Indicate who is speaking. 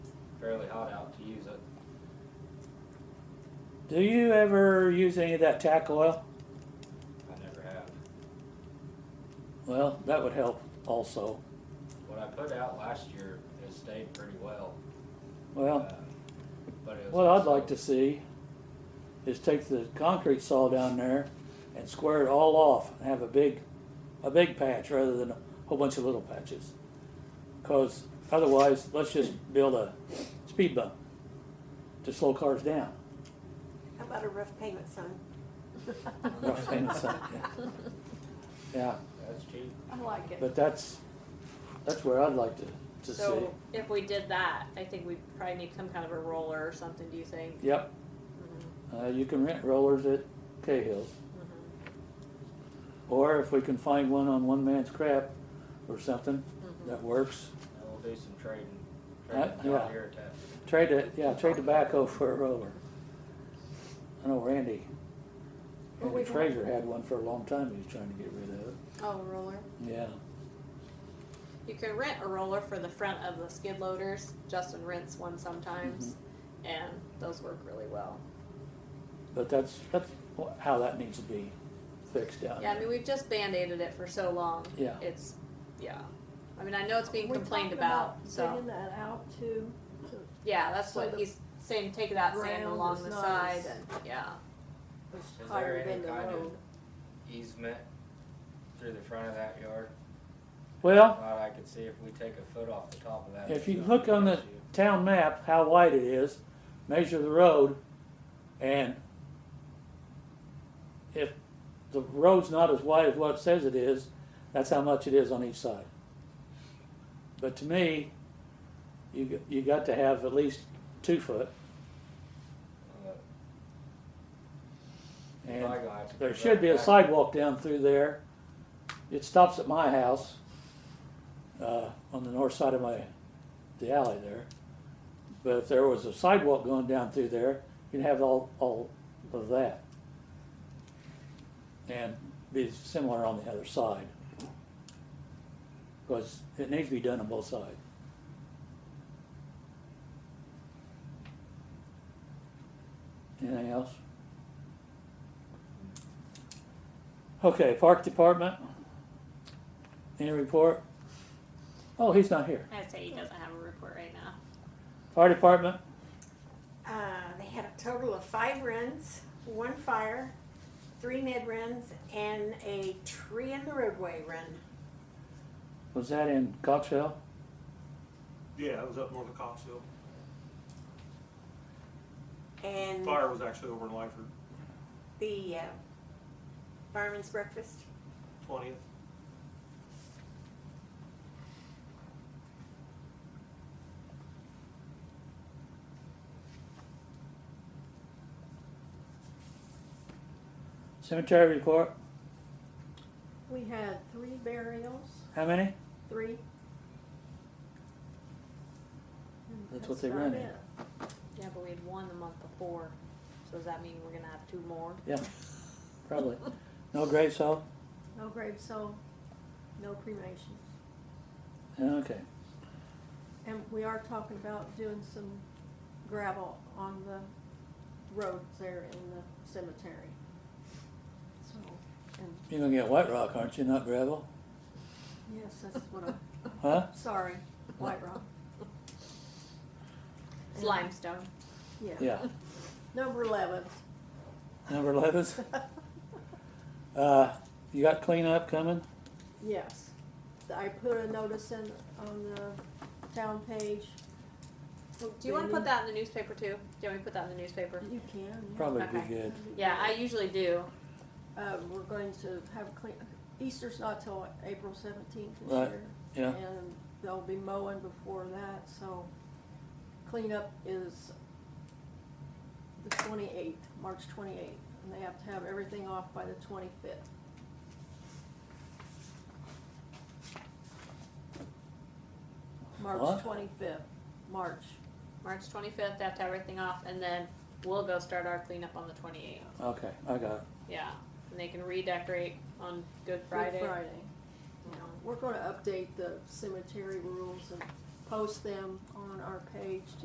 Speaker 1: really hot out to use it.
Speaker 2: Do you ever use any of that tack oil?
Speaker 1: I never have.
Speaker 2: Well, that would help also.
Speaker 1: What I put out last year, it stayed pretty well.
Speaker 2: Well,
Speaker 1: uh, But it was.
Speaker 2: what I'd
Speaker 1: also-
Speaker 2: like to see is take the concrete saw down there and square it all off and have a big, a big patch rather than a whole bunch of little patches. Cause otherwise, let's just build a speed bump to slow cars down.
Speaker 3: How about a rough payment sign?
Speaker 2: Rough payment sign, yeah. Yeah,
Speaker 1: That's cheap.
Speaker 4: I like it.
Speaker 2: but that's, that's where I'd like to, to see.
Speaker 5: So if we did that, I think we probably need some kind of a roller or something, do you think?
Speaker 2: Yep. Uh, you can rent rollers at Cahill's. Or if we can find one on one man's crap or something, that works.
Speaker 1: And we'll do some trading,
Speaker 2: Uh,
Speaker 1: trading John
Speaker 2: yeah.
Speaker 1: Deere attachments.
Speaker 2: Trade it, yeah, trade tobacco for a roller. I know Randy,
Speaker 4: Well,
Speaker 2: Randy
Speaker 4: we've had-
Speaker 2: Fraser had one for a long time, he was trying to get rid of it,
Speaker 3: Oh, roller.
Speaker 2: yeah.
Speaker 5: You could rent a roller for the front of the skid loaders. Justin rents one sometimes,
Speaker 2: Mm-hmm.
Speaker 5: and those work really well.
Speaker 2: But that's, that's wh- how that needs to be fixed down
Speaker 5: Yeah, I mean,
Speaker 2: there.
Speaker 5: we've just band-aided it for so long.
Speaker 2: Yeah.
Speaker 5: It's, yeah. I mean, I know it's being
Speaker 4: We
Speaker 5: complained
Speaker 4: talked
Speaker 5: about,
Speaker 4: Taking
Speaker 5: so,
Speaker 4: that out too.
Speaker 5: yeah, that's
Speaker 4: so
Speaker 5: what
Speaker 4: the
Speaker 5: he's saying, take that sand
Speaker 4: ground
Speaker 5: along
Speaker 4: is
Speaker 5: the
Speaker 4: not
Speaker 5: side
Speaker 4: as-
Speaker 5: and, yeah.
Speaker 4: was
Speaker 1: there
Speaker 4: higher
Speaker 1: any
Speaker 4: than the
Speaker 1: kind of-
Speaker 4: road.
Speaker 1: Easement through the front of that yard.
Speaker 2: Well,
Speaker 1: Thought I could see if we take a foot off the top of that.
Speaker 2: If you
Speaker 1: it's not
Speaker 2: look on
Speaker 1: an
Speaker 2: the
Speaker 1: issue.
Speaker 2: town map, how wide it is, measure the road, and if the road's not as wide as what it says it is, that's how much it is on each side. But to me, you, g- you got to have at least two foot,
Speaker 1: Uh,
Speaker 2: and
Speaker 1: probably gonna have to
Speaker 2: there
Speaker 1: put
Speaker 2: should
Speaker 1: that
Speaker 2: be a
Speaker 1: back.
Speaker 2: sidewalk down through there. It stops at my house, uh, on the north side of my, the alley there. But if there was a sidewalk going down through there, you'd have all, all of that. And be similar on the other side. Cause it needs to be done on both sides. Anything else? Okay, park department. Any report? Oh, he's not here.
Speaker 5: I'd say he doesn't have a report right now.
Speaker 2: Fire department,
Speaker 3: Uh, they had a total of five runs, one fire, three mid runs, and a tree in the roadway run.
Speaker 2: was that in Coxville?
Speaker 6: Yeah, it was up north of Coxville.
Speaker 3: And
Speaker 6: Fire was actually over in Lyford,
Speaker 3: the uh, fireman's breakfast.
Speaker 6: twentieth.
Speaker 2: Cemetery report,
Speaker 4: We had three burials,
Speaker 2: how many?
Speaker 4: three.
Speaker 2: That's what they run in.
Speaker 5: Yeah, but we had one the month before, so does that mean we're gonna have two more?
Speaker 2: Yeah, probably. No grave salt?
Speaker 4: No grave soul, no cremation.
Speaker 2: Okay.
Speaker 4: And we are talking about doing some gravel on the roads there in the cemetery. So, and
Speaker 2: You're gonna get white rock, aren't you, not gravel?
Speaker 4: yes, that's what I'm,
Speaker 2: Huh?
Speaker 4: sorry, White Rock,
Speaker 5: It's limestone.
Speaker 4: yeah.
Speaker 2: Yeah,
Speaker 4: Number eleven.
Speaker 2: number eleven. Uh, you got cleanup coming?
Speaker 4: Yes. I put a notice in on the town page.
Speaker 5: Do you wanna put that in the newspaper too? Do you want me to put that in the newspaper?
Speaker 4: You can. Oh, yeah.
Speaker 2: Probably be
Speaker 5: Okay.
Speaker 2: good.
Speaker 5: Yeah, I usually do.
Speaker 4: Uh, we're going to have clean, Easter's not till April seventeenth this
Speaker 2: Right,
Speaker 4: year.
Speaker 2: yeah.
Speaker 4: And they'll be mowing before that, so cleanup is the twenty-eighth, March twenty-eighth, and they have to have everything off by the twenty-fifth.
Speaker 2: What?
Speaker 4: March twenty-fifth, March,
Speaker 5: March twenty-fifth, have to have everything off, and then we'll go start our cleanup on the twenty-eighth.
Speaker 2: Okay, I got it.
Speaker 5: Yeah, and they can redecorate on Good
Speaker 4: Good
Speaker 5: Friday.
Speaker 4: Friday. We're gonna update the cemetery rules and post them on our page